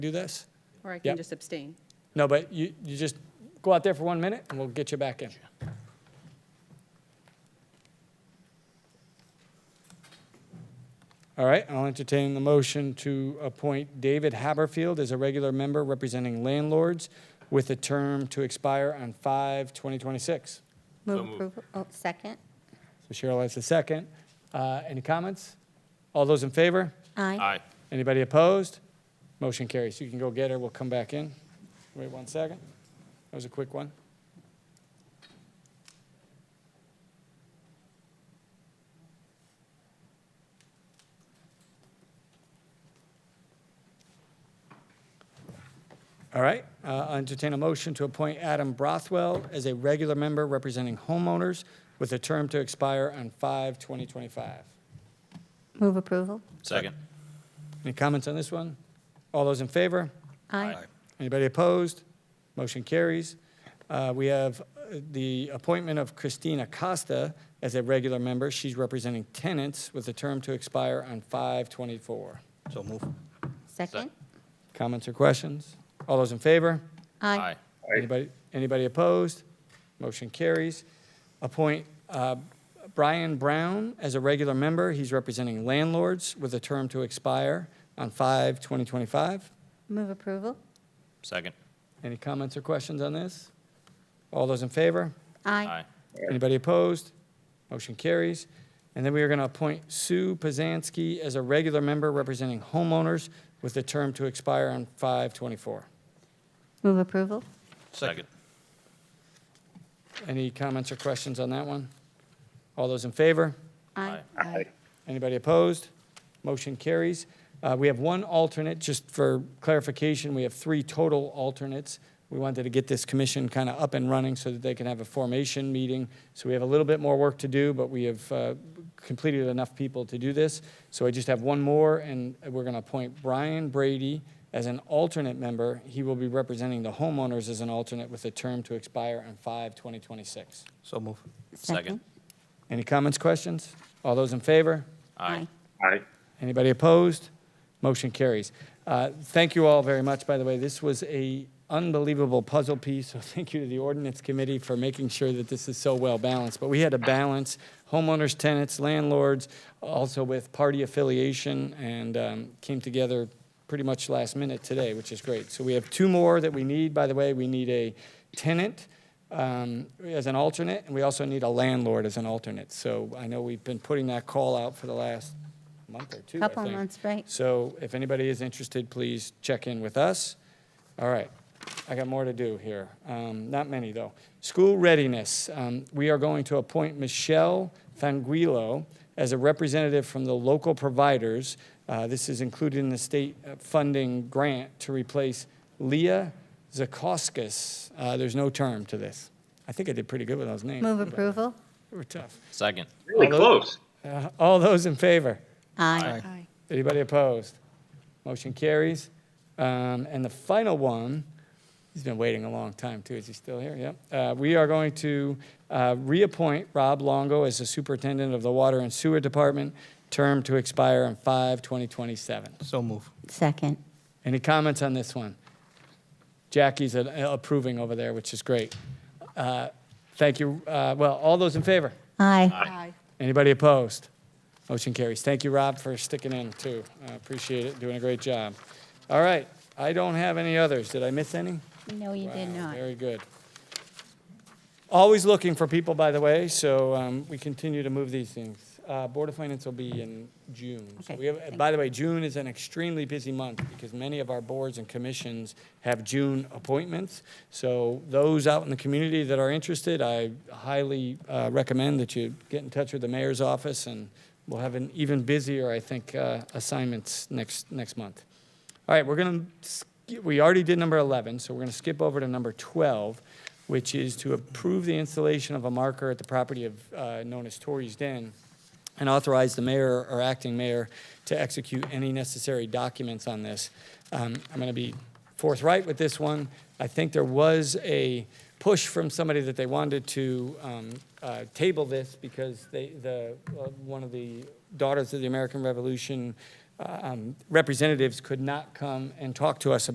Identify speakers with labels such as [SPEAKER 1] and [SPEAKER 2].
[SPEAKER 1] do this?
[SPEAKER 2] Or I can
[SPEAKER 1] Yep.
[SPEAKER 2] just abstain.
[SPEAKER 1] No, but you, you just go out there for one minute and we'll get you back in. All right, I'll entertain the motion to appoint David Haberfield as a regular member representing landlords with a term to expire on 5 2026.
[SPEAKER 3] Move approval, oh, second.
[SPEAKER 1] So Cheryl has the second. Uh, any comments? All those in favor?
[SPEAKER 3] Aye.
[SPEAKER 4] Aye.
[SPEAKER 1] Anybody opposed? Motion carries. You can go get her. We'll come back in. Wait one second. That was a quick one. All right, uh, I'll entertain a motion to appoint Adam Brothwell as a regular member representing homeowners with a term to expire on 5/2025.
[SPEAKER 3] Move approval.
[SPEAKER 4] Second.
[SPEAKER 1] Any comments on this one? All those in favor?
[SPEAKER 3] Aye.
[SPEAKER 1] Anybody opposed? Motion carries. Uh, We have uh, the appointment of Christina Costa as a regular member. She's representing tenants with a term to expire on 5/24.
[SPEAKER 4] So move.
[SPEAKER 3] Second.
[SPEAKER 1] Comments or questions? All those in favor?
[SPEAKER 3] Aye.
[SPEAKER 1] Anybody, anybody opposed? Motion carries. Appoint uh, Brian Brown as a regular member. He's representing landlords with a term to expire on 5/2025.
[SPEAKER 3] Move approval.
[SPEAKER 4] Second.
[SPEAKER 1] Any comments or questions on this? All those in favor?
[SPEAKER 3] Aye.
[SPEAKER 1] Anybody opposed? Motion carries. And then we are going to appoint Sue Pazansky as a regular member representing homeowners with the term to expire on 5/24.
[SPEAKER 3] Move approval.
[SPEAKER 4] Second.
[SPEAKER 1] Any comments or questions on that one? All those in favor?
[SPEAKER 3] Aye.
[SPEAKER 1] Anybody opposed? Motion carries. Uh, We have one alternate, just for clarification, we have three total alternates. We wanted to get this commission kind of up and running so that they can have a formation meeting. So we have a little bit more work to do, but we have uh, completed enough people to do this. So I just have one more, and we're going to appoint Brian Brady as an alternate member. He will be representing the homeowners as an alternate with a term to expire on 5/2026.
[SPEAKER 4] So move.
[SPEAKER 3] Second.
[SPEAKER 4] Second.
[SPEAKER 1] Any comments, questions? All those in favor?
[SPEAKER 3] Aye.
[SPEAKER 1] Anybody opposed? Motion carries. Uh, Thank you all very much, by the way. This was a unbelievable puzzle piece, so thank you to the ordinance committee for making sure that this is so well balanced. But we had to balance homeowners, tenants, landlords, also with party affiliation, and um, came together pretty much last minute today, which is great. So we have two more that we need, by the way. We need a tenant um, as an alternate, and we also need a landlord as an alternate. So I know we've been putting that call out for the last month or two, I
[SPEAKER 3] Couple
[SPEAKER 1] think.
[SPEAKER 3] months, right.
[SPEAKER 1] So if anybody is interested, please check in with us. All right, I got more to do here. Um, Not many, though. School readiness, Um, we are going to appoint Michelle Fanguilo as a representative from the local providers. Uh, This is included in the state uh, funding grant to replace Leah Zakoskis. Uh, There's no term to this. I think I did pretty good with those names.
[SPEAKER 3] Move approval.
[SPEAKER 1] They were tough.
[SPEAKER 4] Second.
[SPEAKER 5] Really close.
[SPEAKER 1] Uh, All those in favor?
[SPEAKER 3] Aye.
[SPEAKER 1] Anybody opposed? Motion carries. Um, And the final one, he's been waiting a long time, too. Is he still here? Yep. Uh, We are going to uh, reappoint Rob Longo as the superintendent of the Water and Sewer Department, term to expire on 5/2027.
[SPEAKER 4] So move.
[SPEAKER 3] Second.
[SPEAKER 1] Any comments on this one? Jackie's uh, approving over there, which is great. Uh, Thank you. Uh, Well, all those in favor?
[SPEAKER 3] Aye.
[SPEAKER 2] Aye.
[SPEAKER 1] Anybody opposed? Motion carries. Thank you, Rob, for sticking in, too. I appreciate it, doing a great job. All right, I don't have any others. Did I miss any?
[SPEAKER 3] No, you did
[SPEAKER 1] Wow,
[SPEAKER 3] not.
[SPEAKER 1] Very good. Always looking for people, by the way, so um, we continue to move these things. Uh, Board of Finance will be in June. So
[SPEAKER 3] Okay,
[SPEAKER 1] we have, by the way, June is an extremely busy month because many of our boards and commissions have June appointments. So those out in the community that are interested, I highly uh, recommend that you get in touch with the mayor's office and we'll have an even busier, I think, uh, assignments next, next month. All right, we're going to, we already did number 11, so we're going to skip over to number 12, which is to approve the installation of a marker at the property of, uh, known as Torrey's Den, and authorize the mayor or acting mayor to execute any necessary documents on this. Um, I'm going to be forthright with this one. I think there was a push from somebody that they wanted to um, uh, table this because they, the, uh, one of the Daughters of the American Revolution uh, um, representatives could not come and talk to us